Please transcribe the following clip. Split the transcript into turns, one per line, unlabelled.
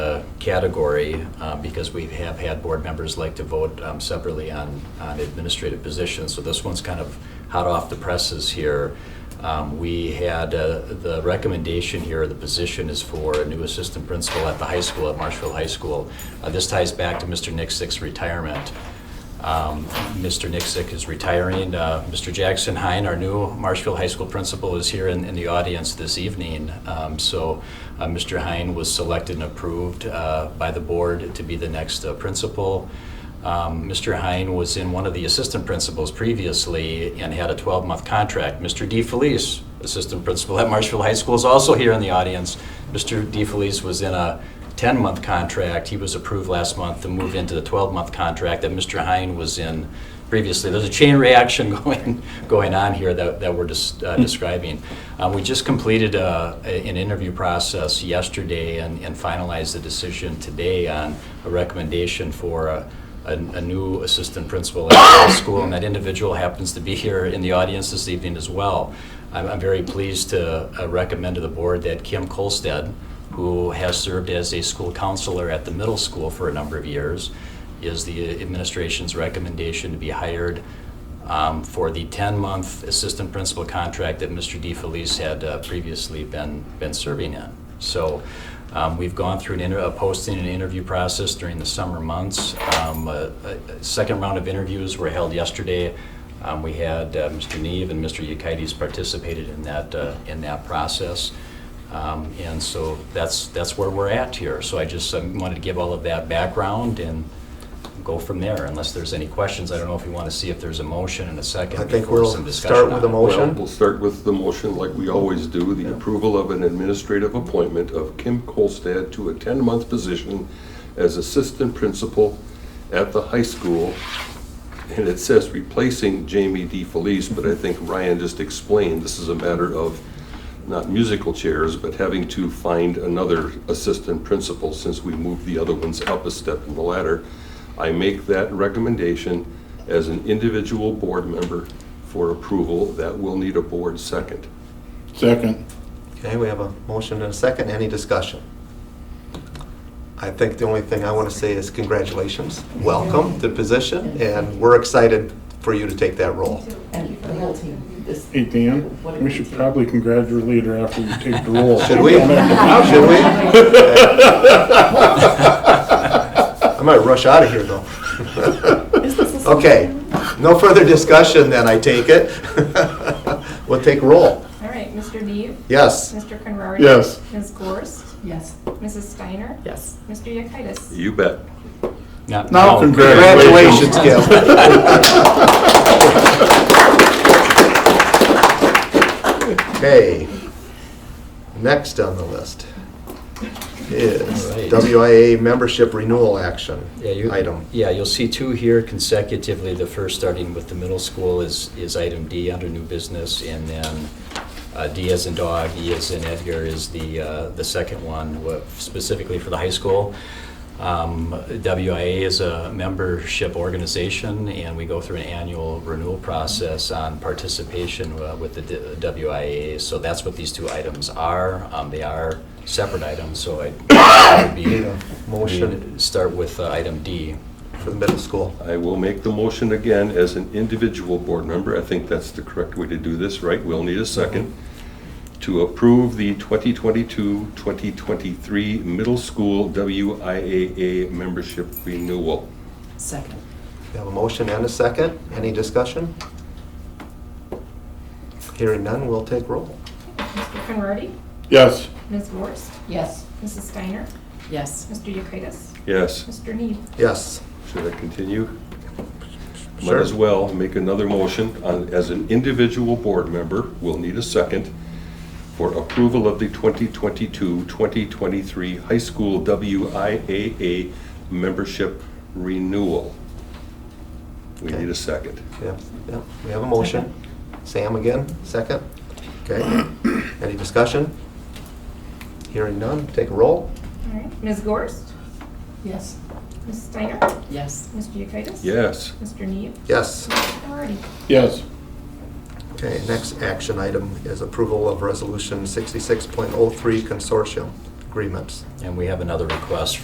uh, category, uh, because we have had board members like to vote um, separately on, on administrative positions, so this one's kind of hot off the presses here. Um, We had, uh, the recommendation here, the position is for a new assistant principal at the high school, at Marshfield High School. Uh, This ties back to Mr. Nixick's retirement. Um, Mr. Nixick is retiring. Uh, Mr. Jackson Hine, our new Marshfield High School principal, is here in, in the audience this evening. Um, So uh, Mr. Hine was selected and approved uh, by the board to be the next uh, principal. Um, Mr. Hine was in one of the assistant principals previously and had a 12-month contract. Mr. DeFelice, assistant principal at Marshfield High School, is also here in the audience. Mr. DeFelice was in a 10-month contract. He was approved last month to move into the 12-month contract that Mr. Hine was in previously. There's a chain reaction going, going on here that, that we're just describing. Uh, We just completed uh, a- an interview process yesterday and and finalized the decision today on a recommendation for a, a a new assistant principal at the school, and that individual happens to be here in the audience this evening as well. I'm, I'm very pleased to uh, recommend to the board that Kim Colstead, who has served as a school counselor at the middle school for a number of years, is the administration's recommendation to be hired um, for the 10-month assistant principal contract that Mr. DeFelice had uh, previously been, been serving in. So um, we've gone through an inter- a posting and interview process during the summer months. Um, a- a- a Second round of interviews were held yesterday. Um, We had uh, Mr. Neve and Mr. Yekites participated in that, uh, in that process. Um, And so that's, that's where we're at here. So I just um, wanted to give all of that background and go from there, unless there's any questions. I don't know if you want to see if there's a motion and a second
I think
before
we'll
some discussion.
start
on
with a
it.
mo- Motion?
Well, we'll start with the motion like we always do, the approval of an administrative appointment of Kim Kolstad to a 10-month position as assistant principal at the high school. And it says replacing Jamie D. Felice, but I think Ryan just explained, this is a matter of not musical chairs, but having to find another assistant principal since we moved the other ones up a step in the ladder. I make that recommendation as an individual board member for approval. That will need a board second.
Second.
Okay, we have a motion and a second. Any discussion? I think the only thing I want to say is congratulations. Welcome to the position, and we're excited for you to take that role.
And the whole team. This-
Hey, Dan,
what a
we
great
should
team.
probably congratulate her after you take the role.
Should we? Should we? I might rush out of here, though.
Is this a-
Okay, no further discussion then, I take it. We'll take roll.
All right, Mr. Neve,
Yes.
Mr. Conrady.
Yes.
Ms. Gorst,
Yes.
Mrs. Steiner.
Yes.
Mr. Yekitis.
You bet.
Now-
Now,
Congratulations, Gil. Okay. Next on the list is
All right.
WIA membership renewal action
Yeah, you-
item.
Yeah, you'll see two here consecutively. The first, starting with the middle school, is, is item D under new business, and then uh, D as in dog, E as in Edgar is the, uh, the second one, wha- specifically for the high school. Um, WIA is a membership organization, and we go through an annual renewal process on participation uh, with the D- WIA. So that's what these two items are. Um, They are separate items, so I- I would be
Motion
Motion, start with uh, item D.
for the middle school.
I will make the motion again as an individual board member. I think that's the correct way to do this, right? We'll need a second. To approve the 2022-2023 middle school WIAA membership renewal.
Second.
We have a motion and a second. Any discussion? Hearing none, we'll take roll.
Mr. Conrady,
Yes.
Ms. Gorst,
Yes.
Mrs. Steiner,
Yes.
Mr. Yekitis,
Yes,
Mr. Neve.
Yes.
should I continue? Might
Sure.
as well make another motion on, as an individual board member, we'll need a second, for approval of the 2022-2023 high school WIAA membership renewal. We need a second.
Yep, yep. We have a motion. Sam again, second. Okay. Any discussion? Hearing none, take a roll.
All right, Ms. Gorst,
Yes.
Mrs. Steiner,
Yes.
Mr. Yekitis.
Yes,
Mr. Neve,
Yes.
Mr. Conrady.
Yes.
Okay, next action item is approval of Resolution 66.03 Consortium Agreements.
And we have another request